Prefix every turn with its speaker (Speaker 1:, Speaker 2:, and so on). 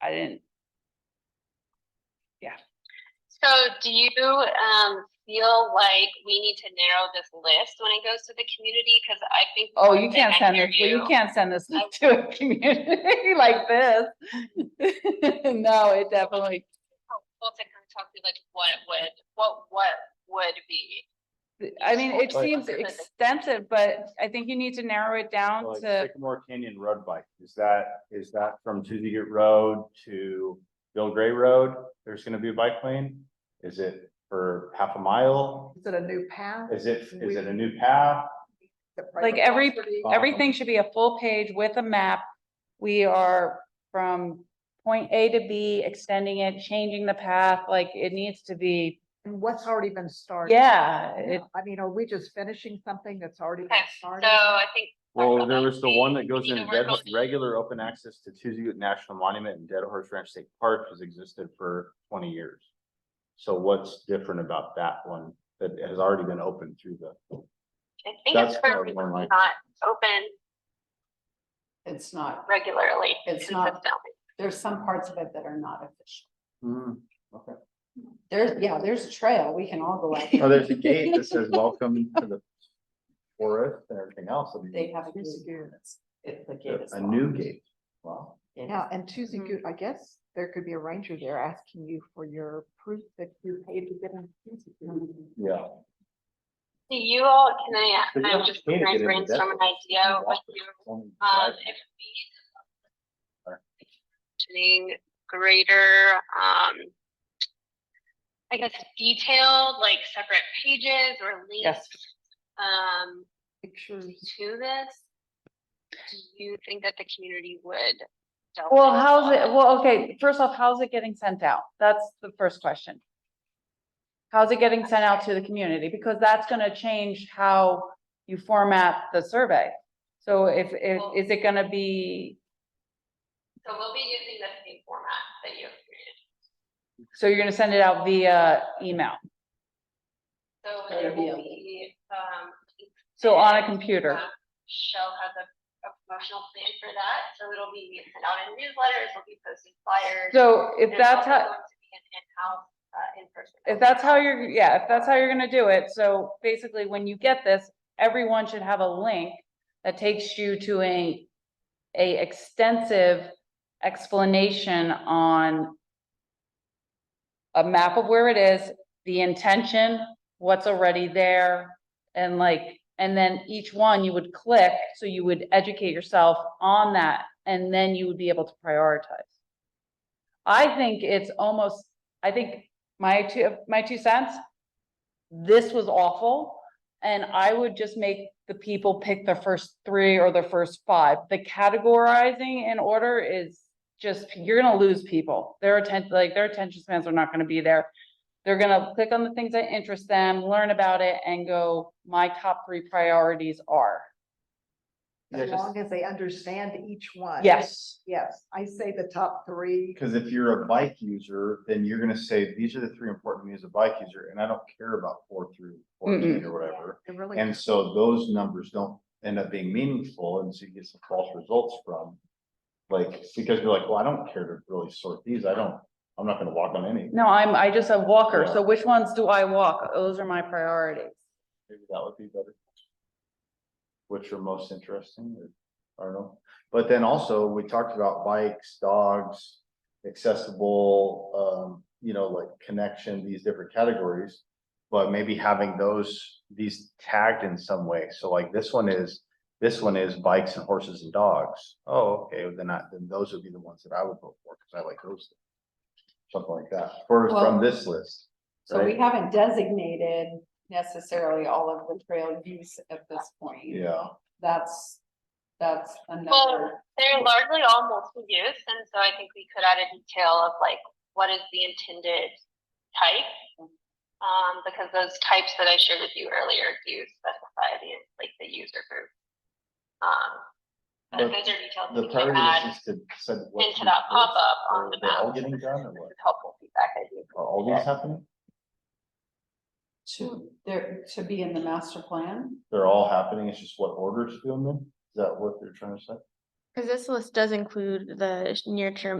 Speaker 1: I didn't,
Speaker 2: So do you um feel like we need to narrow this list when it goes to the community? Cause I think.
Speaker 1: oh,
Speaker 2: one
Speaker 1: you
Speaker 2: thing
Speaker 1: can't
Speaker 2: I
Speaker 1: send
Speaker 2: hear
Speaker 1: this, well, you
Speaker 2: you-
Speaker 1: can't send this to a community like this. No, it definitely,
Speaker 2: Well, to kind of talk through like what would, what, what would be.
Speaker 1: I mean, it
Speaker 3: Like-
Speaker 1: seems extensive, but I think you need to narrow it down
Speaker 3: Like
Speaker 1: to,
Speaker 3: Sycamore Canyon Road Bike, is that, is that from Tuesday Gate Road to Bill Gray Road? There's gonna be a bike lane? Is it for half a mile?
Speaker 4: Is it a new path?
Speaker 3: Is it, is it a new path?
Speaker 4: Is it
Speaker 1: Like
Speaker 4: private
Speaker 1: every-
Speaker 4: property?
Speaker 1: everything should be a full page with a map. We are from point A to B, extending it, changing the path, like it needs to be,
Speaker 4: And what's already been started?
Speaker 1: yeah,
Speaker 4: Yeah,
Speaker 1: it,
Speaker 4: I mean, are we just finishing something that's already been
Speaker 2: Okay, so
Speaker 4: started?
Speaker 2: I think.
Speaker 3: Well, there was the one that goes
Speaker 2: You
Speaker 3: in
Speaker 2: know, we're
Speaker 3: dead,
Speaker 2: going-
Speaker 3: regular open access to Tuesday Gate National Monument and Dead Horse Ranch State Park has existed for twenty years. So what's different about that one that has already been open through the?
Speaker 2: I think
Speaker 3: That's
Speaker 2: it's
Speaker 3: probably
Speaker 2: for
Speaker 3: one of my-
Speaker 2: not open
Speaker 5: It's not,
Speaker 2: regularly.
Speaker 5: It's not-
Speaker 2: consistently.
Speaker 5: there's some parts of it that are not official.
Speaker 3: Hmm, okay.
Speaker 5: There's, yeah, there's a trail, we can all go out.
Speaker 3: Oh, there's a gate that says welcome to the forest and everything else. I mean,
Speaker 5: They have a gate.
Speaker 4: Yes, you do.
Speaker 5: It's- It, the gate is.
Speaker 3: A
Speaker 5: locked.
Speaker 3: new gate. Wow.
Speaker 5: It
Speaker 4: Yeah,
Speaker 5: is.
Speaker 4: and Tuesday,
Speaker 1: Mhm.
Speaker 4: Goo- I guess there could be a ranger there asking you for your proof that you paid to get in. Tuesday Goo.
Speaker 3: Yeah.
Speaker 2: Do you all, can I, uh,
Speaker 3: But you
Speaker 2: I'm
Speaker 3: don't
Speaker 2: just
Speaker 3: need to
Speaker 2: trying
Speaker 3: get
Speaker 2: to
Speaker 3: into that.
Speaker 2: brainstorm an idea with you. Um, if we.
Speaker 3: Sure.
Speaker 2: Mentioning greater, um. I guess detailed, like separate pages or links,
Speaker 1: yes.
Speaker 2: um,
Speaker 4: Pictures.
Speaker 2: to this. Do you think that the community would? delve
Speaker 1: Well,
Speaker 2: into
Speaker 1: how's
Speaker 2: all
Speaker 1: it,
Speaker 2: this?
Speaker 1: well, okay, first off, how's it getting sent out? That's the first question. How's it getting sent out to the community? Because that's gonna change how you format the survey. So if, if,
Speaker 2: Well-
Speaker 1: is it gonna be,
Speaker 2: So we'll be using the same format that you have created.
Speaker 1: so you're gonna send it out via email?
Speaker 2: So
Speaker 5: That'll
Speaker 2: it
Speaker 5: be
Speaker 2: will
Speaker 5: a-
Speaker 2: be, um.
Speaker 1: So on a
Speaker 2: and,
Speaker 1: computer?
Speaker 2: uh, Shell has a, a promotional plan for that, so it'll be sent out in newsletters, it'll be posted flyers.
Speaker 1: So if
Speaker 2: and it's
Speaker 1: that's
Speaker 2: also
Speaker 1: how,
Speaker 2: going to be an In-house, uh, in-person.
Speaker 1: if that's how you're, yeah, if that's how you're gonna do it, so basically when you get this, everyone should have a link that takes you to a, a extensive explanation on a map of where it is, the intention, what's already there, and like, and then each one you would click, so you would educate yourself on that, and then you would be able to prioritize. I think it's almost, I think my two, my two cents, this was awful. And I would just make the people pick their first three or their first five. The categorizing in order is just, you're gonna lose people. Their attention, like their attention spans are not gonna be there. They're gonna click on the things that interest them, learn about it and go, my top three priorities are.
Speaker 4: As long as they understand each one.
Speaker 1: Yes,
Speaker 4: Yes, I say the top three.
Speaker 3: Because if you're a bike user, then you're gonna say, these are the three important to me as a bike user, and I don't care about four through fourteen or whatever.
Speaker 4: They're really-
Speaker 3: And so those numbers don't end up being meaningful, and so you get some false results from. Like, because you're like, well, I don't care to really sort these, I don't, I'm not gonna walk on any.
Speaker 1: no, I'm, I just a walker.
Speaker 3: Yeah.
Speaker 1: So which ones do I walk? Those are my priorities.
Speaker 3: Maybe that would be better. Which are most interesting, or, I don't know, but then also, we talked about bikes, dogs. Accessible, um, you know, like connection, these different categories. But maybe having those, these tagged in some way, so like this one is, this one is bikes and horses and dogs. Oh, okay, then I, then those would be the ones that I would vote for, because I like those. Something like that, for,
Speaker 5: Well-
Speaker 3: from this list.
Speaker 5: So we
Speaker 3: right?
Speaker 5: haven't designated necessarily all of the trail use at this point.
Speaker 3: Yeah.
Speaker 5: That's, that's another,
Speaker 2: Well- They're largely all multi-use, and so I think we could add a detail of like, what is the intended type? Um, because those types that I shared with you earlier do specify the, like, the user group. Um, but
Speaker 3: But
Speaker 2: those are details
Speaker 3: The
Speaker 2: we can
Speaker 3: priority
Speaker 2: add
Speaker 3: is to send. what
Speaker 2: into
Speaker 3: you
Speaker 2: that
Speaker 3: first,
Speaker 2: pop-up
Speaker 3: or
Speaker 2: on the
Speaker 3: they're All
Speaker 2: map.
Speaker 3: getting done or
Speaker 2: This
Speaker 3: what?
Speaker 2: is helpful feedback, I do.
Speaker 3: Are all these happening?
Speaker 5: to, there, to be in the master plan.
Speaker 3: They're all happening, it's just what order to do them in? Is that what they're trying to say?
Speaker 6: Because this list does include the sh- near-term